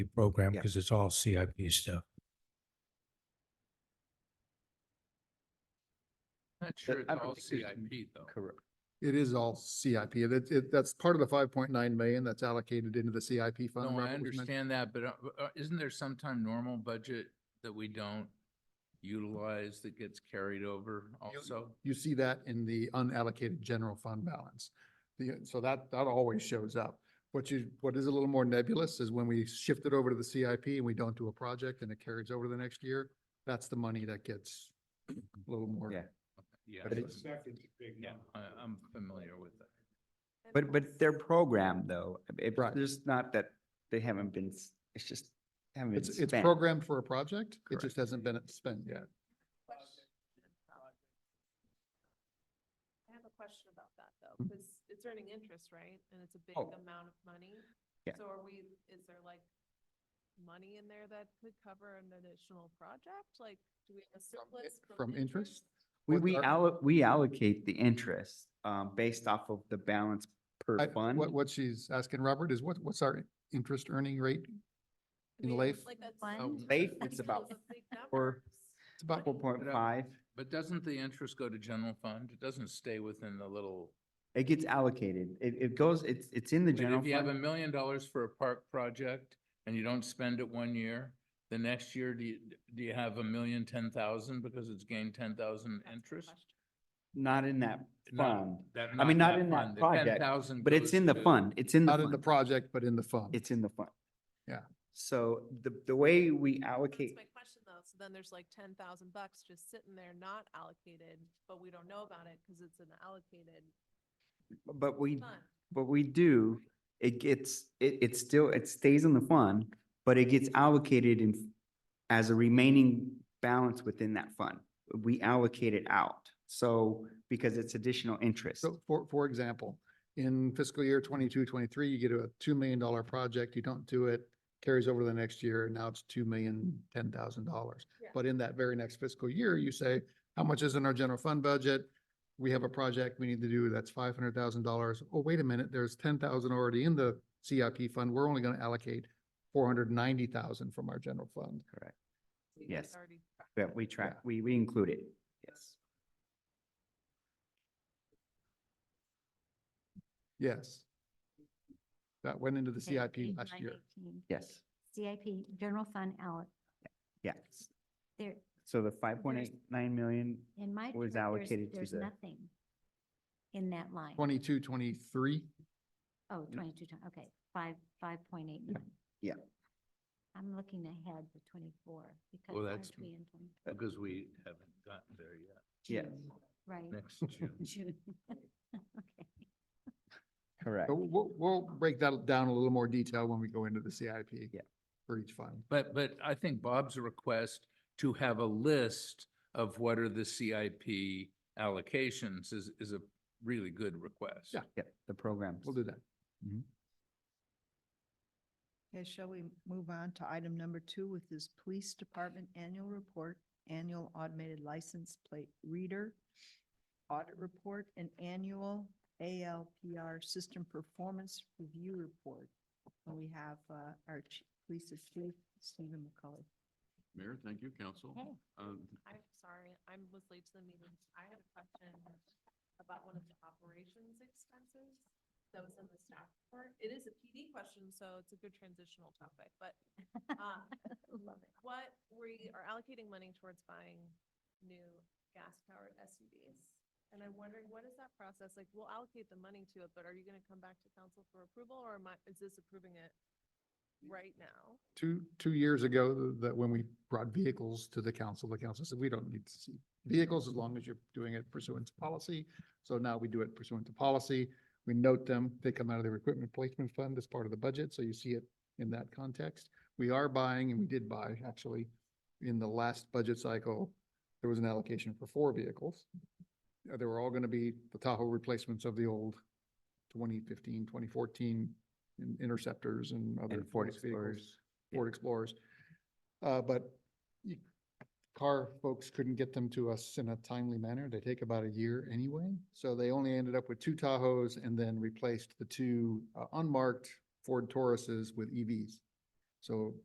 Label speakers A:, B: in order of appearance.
A: program
B: Yeah.
A: because it's all CIP stuff.
C: Not sure it's
B: I don't
C: all
B: think there's any-
C: CIP though.
B: Correct.
D: It is all CIP. It- It, it, that's part of the five point nine million that's allocated into the CIP fund.
C: No, I
D: Robert was men-
C: understand that, but uh, uh, isn't there sometime normal budget that we don't utilize that gets carried over also?
D: You see that in the unallocated general fund balance. The, so that, that always shows up. What you, what is a little more nebulous is when we shift it over to the CIP and we don't do a project and it carries over to the next year, that's the money that gets a little more.
B: Yeah.
C: Yeah,
B: But it's-
C: yeah, I- I'm familiar with that.
B: But, but their program though, it,
D: Right.
B: there's not that they haven't been, s- it's just haven't been
D: It's, it's
B: spent.
D: programmed for a project. It
B: Correct.
D: just hasn't been spent yet.
E: I have a question about that though,
D: Mm.
E: because it's earning interest, right? And it's a big
B: Oh.
E: amount of money.
B: Yeah.
E: So are we, is there like money in there that could cover an additional project? Like, do we have
D: i-
E: a surplus?
D: from interest?
B: We,
D: What
B: we
D: are-
B: alloc, we allocate the interest, um, based off of the balance per
D: I-
B: fund.
D: What, what she's asking, Robert, is what, what's our interest earning rate?
E: I
D: in
E: mean,
D: life?
E: Like that's.
F: Fund?
B: Uh, Leif, it's
E: those
B: about
E: are big
B: four-
E: numbers.
D: It's about
B: Four point five,
C: But doesn't the interest go to general fund? It doesn't stay within the little.
B: it gets allocated. It, it goes, it's, it's in the
C: I mean,
B: general
C: If you have a
B: fund.
C: million dollars for a park project and you don't spend it one year, the next year, do you, do you have a million, ten thousand because it's gained ten thousand
E: That's the
C: interest?
E: question.
B: Not in that
C: No,
B: fund,
C: that-
B: I mean, not in that
C: fund. The
B: project,
C: 10,000
B: but it's
C: goes
B: in the
C: to-
B: fund. It's in the
D: Not in the
B: fund.
D: project, but in the fund.
B: It's in the fund.
D: Yeah.
B: So the, the way we
E: That's
B: allocate,
E: my question though. So then there's like ten thousand bucks just sitting there not allocated, but we don't know about it because it's an allocated
B: but we,
E: fund.
B: but we do, it gets, it, it still, it stays in the fund, but it gets allocated in, as a remaining balance within that fund. We allocate it out. So, because it's additional interest.
D: So for, for example, in fiscal year 22-23, you get a two million dollar project, you don't do it, carries over to the next year, now it's two million, ten thousand dollars.
E: Yeah.
D: But in that very next fiscal year, you say, how much is in our general fund budget? We have a project we need to do, that's five hundred thousand dollars. Oh, wait a minute, there's ten thousand already in the CIP fund, we're only gonna allocate four hundred ninety thousand from our general fund.
B: Correct.
E: We
B: Yes.
E: already-
B: That we track, we, we include it. Yes.
D: Yes. That went into the
F: Okay,
D: CIP
F: page
D: last year.
F: 918.
B: Yes,
F: CIP, general fund alloc,
B: yes.
F: there,
B: So the five point eight nine million,
F: in my.
B: Was
F: chart, there's-
B: allocated to
F: There's
B: the-
F: nothing in that line.
D: 22-23.
F: Oh, twenty-two, ti- okay, five, five point eight nine.
B: Yeah.
F: I'm looking ahead for twenty-four because
C: Well,
F: aren't
C: that's-
F: we in 20
C: Because we haven't gotten there yet.
B: Yeah.
F: June, Right,
C: Next June.
F: June. Okay.
B: correct.
D: So We'll, we'll break that down a little more detail when we go into the CIP.
B: Yeah.
D: For each fund.
C: But, but I think Bob's request to have a list of what are the CIP allocations is, is a really good request.
D: Yeah.
B: Yeah, the programs.
D: We'll do that.
G: Okay, shall we move on to item number two, which is Police Department Annual Report, Annual Automated License Plate Reader, Audit Report, and Annual ALPR System Performance Review Report. And we have uh, our Chief Police Chief, Stephen McCullough.
H: Mayor, thank you, council.
F: Okay.
H: Um,
E: I'm sorry, I was late to the meeting. I had a question about one of the operations expenses that was in the staff report. It is a PD question, so it's a good transitional topic, but um,
F: Love it.
E: what, we are allocating money towards buying new gas-powered SUVs. And I'm wondering, what is that process? Like, we'll allocate the money to it, but are you going to come back to council for approval or am I, is this approving it right now?
D: Two, two years ago, th- that when we brought vehicles to the council, the council said, we don't need to see vehicles as long as you're doing it pursuant to policy. So now we do it pursuant to policy. We note them. They come out of their equipment placement fund as part of the budget. So you see it in that context. We are buying and we did buy actually in the last budget cycle, there was an allocation for four vehicles. Uh, They were all going to be the Tahoe replacements of the old 2015, 2014 in- Interceptors and other.
B: And Ford
D: police vehicles,
B: Explorers. Yeah.
D: Ford Explorers. Uh, But you- car folks couldn't get them to us in a timely manner. They take about a year anyway. So they only ended up with two Tahoes and then replaced the two uh, unmarked Ford Tauruses with EVs. So